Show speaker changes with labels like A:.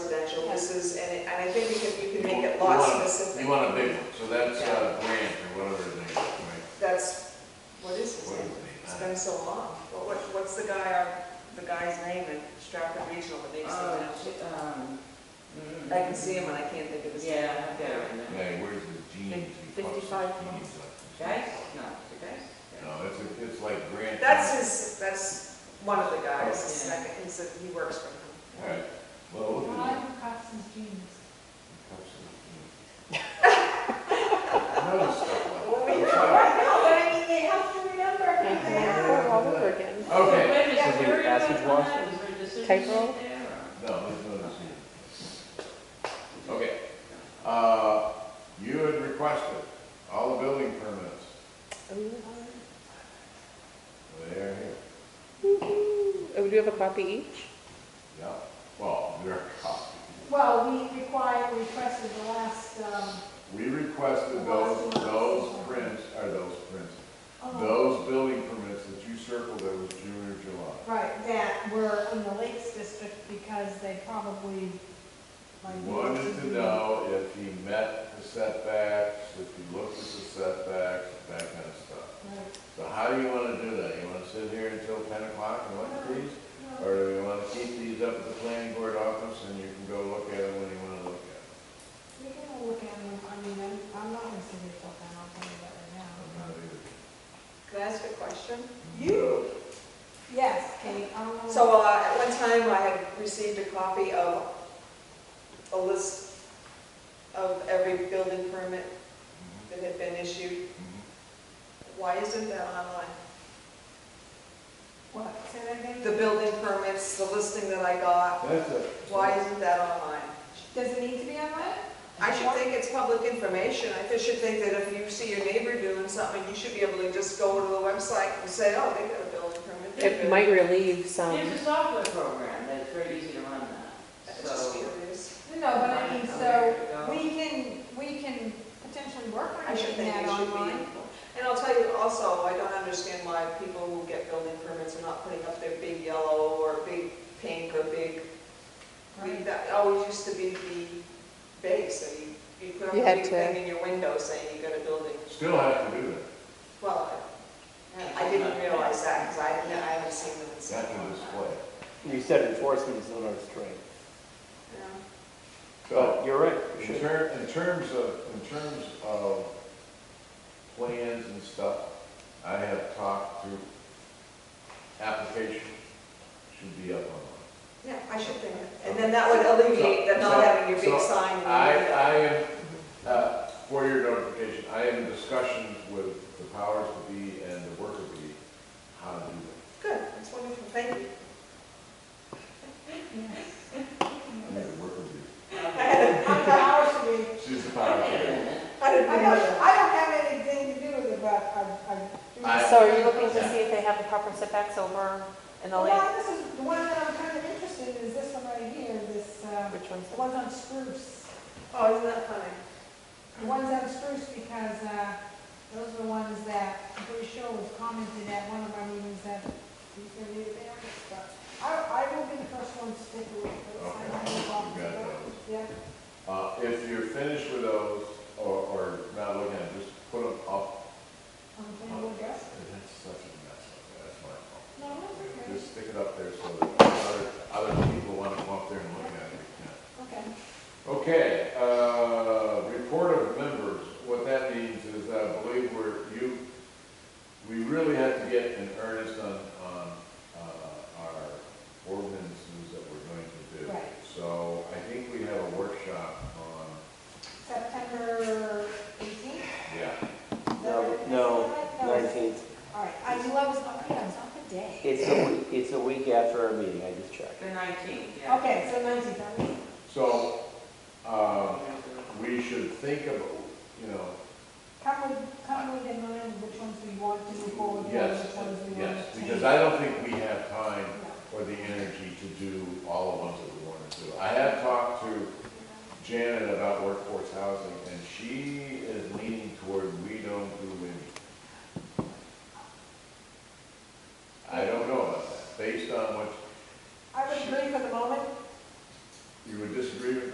A: uses, and it- and I think we can, you can make it
B: You
A: lot
B: want a-
A: specific.
B: You want a big one, so that's uh, Grant or whatever his name is, right?
A: That's, what is his
B: Whatever
A: name? It's
B: his name
A: been so long. What, what- what's the guy, on- the guy's name in Stratford Regional, but they just don't
C: Oh,
A: know?
C: j- um, mm,
A: I can see him and I can't think of his name.
C: Yeah, I've got it right
B: is.
C: now.
B: Yeah, where's the jeans? He pops his
D: 55
B: jeans
D: months.
B: up.
C: Guys? No, the guys?
B: No, it's, a- it's like Grant.
A: That's his, that's one of the guys, his
C: Yeah.
A: second, he's, a- he works for him.
B: All right, well, we'll do
D: Why
B: that.
D: Cox's jeans?
B: I know stuff like that. I'm sorry.
C: No, but I mean, they have to remember who they are.
D: all over again.
B: Okay,
C: Wait a minute,
D: So do
C: where are you
D: passage
C: at on
D: wash
C: that?
D: and
C: Is there a decision
D: type
C: sheet
D: roll?
C: there, or-
B: no, there's no decision. Okay, uh, you had requested all the building permits. They're here.
D: Oh, we do have a copy each?
B: Yeah, well, they're copied.
D: Well, we required, requested the last, um,
B: We requested those, those prints, are those prints,
D: oh,
B: those building permits that you circled that was June or July.
D: right, that were in the Lakes District because they probably. like,
B: We Wanted to know if he met the setbacks, if he looked at the setbacks, that kind of stuff.
D: Right.
B: So how do you want to do that? You want to sit here until ten o'clock and look at these? Or do you want to keep these up at the planning board office and you can go look at them when you want to look at them?
D: We can all look at them, I mean, I'm, I'm not gonna sit here till then, I'll tell you that right
B: I'm
D: now.
B: not either.
A: Can I ask a question?
B: You.
D: Yes, Kate, I don't know.
A: So uh, at one time, I had received a copy of a list of every building permit that had been issued. Why isn't that online?
D: What, say that again?
A: The building permits, the listing that I got,
B: mm-hmm. That's it.
A: why isn't that online?
D: Does it need to be on that?
A: I should think it's public information. I just should think that if you see your neighbor doing something, you should be able to just go to the website and say, oh, they got a building permit. they
C: It
A: did."
D: Good.
C: Yeah.
D: All
C: might-
D: right,
C: might
D: relieve
C: There's a software program that's very easy to run that,
A: It's just
C: so.
A: curious.
D: No, but I mean, so,
C: so,
D: we can, we can potentially work
A: I
D: on
A: should
D: getting
A: think
D: that
A: it should
D: online.
A: be. And I'll tell you also, I don't understand why people who get building permits are not putting up their big yellow or big pink or big, I mean,
D: Right.
A: that always used to be the base. So you, you put up
D: You
A: a
D: had
A: big
D: to-
A: thing in your window saying you got a building.
B: Still have to do that.
A: Well, I didn't realize that because I, I haven't seen them in so
B: That's a
A: long.
B: display.
E: You said enforcement is not our strength.
A: Yeah.
E: But you're right, we
B: In
E: should.
B: ter, in terms of, in terms of plans and stuff, I have talked to, application should be up online.
A: Yeah, I should think, and then that would alleviate the not having your big sign. in the
B: I,
A: window.
B: I am, uh, for your notification, I am in discussions with the powers to be and the worker bee, how to do that.
A: Good, that's wonderful, thank you.
B: I mean, the worker bee,
D: How many hours should we?
B: she's the power
C: Wait a
B: bee.
C: minute.
A: I
D: I
A: didn't
D: don't,
A: know.
D: I don't have anything to do with it, but I, I. do-
B: I-
F: So are you looking to see if they have the proper setbacks over in the lake?
D: Well, this is, the one that I'm kind of interested in is this one right here, this, uh,
F: Which one's
D: the ones on spruce.
A: Oh, isn't that funny?
D: The ones on spruce because, uh, those are the ones that, I'm pretty sure was commented at one of our meetings that you said you were there, but I, I will be the first one to stick with those. I don't know about-
B: Okay, you got those.
D: Yeah.
B: Uh, if you're finished with those, or, or not looking at, them, just put them up
D: On Campbell Dress?
B: That's such a mess up there, that's my fault.
D: No, that's okay.
B: Just stick it up there so that other, other people want to come up there and look at it. yeah.
D: Okay.
B: Okay, uh, report of members, what that means is I believe we're, you, we really have to get in earnest on, on, uh, our ordinances that we're going to do.
D: Right.
B: So I think we have a workshop on,
D: September eighteenth?
B: yeah,
E: No, no, nineteenth.
D: All right, I knew I was, okay, I was off a day.
E: It's a week, it's a week after our meeting, I just checked.
C: The nineteenth, yeah.
D: Okay, so nineteenth, I'm leaving.
B: so, uh,
D: Oh.
B: we should think of, you know,
D: Come with, come with in mind which ones we want to move forward with,
B: Yes,
D: which ones we want
B: yes,
D: to change.
B: because I don't think we have time
D: No.
B: or the energy to do all the ones that we want to do. I have talked to Janet about workforce housing, and she is leaning toward we don't do any. I don't know about that, based on what,
D: I would agree for the moment,
B: you would disagree with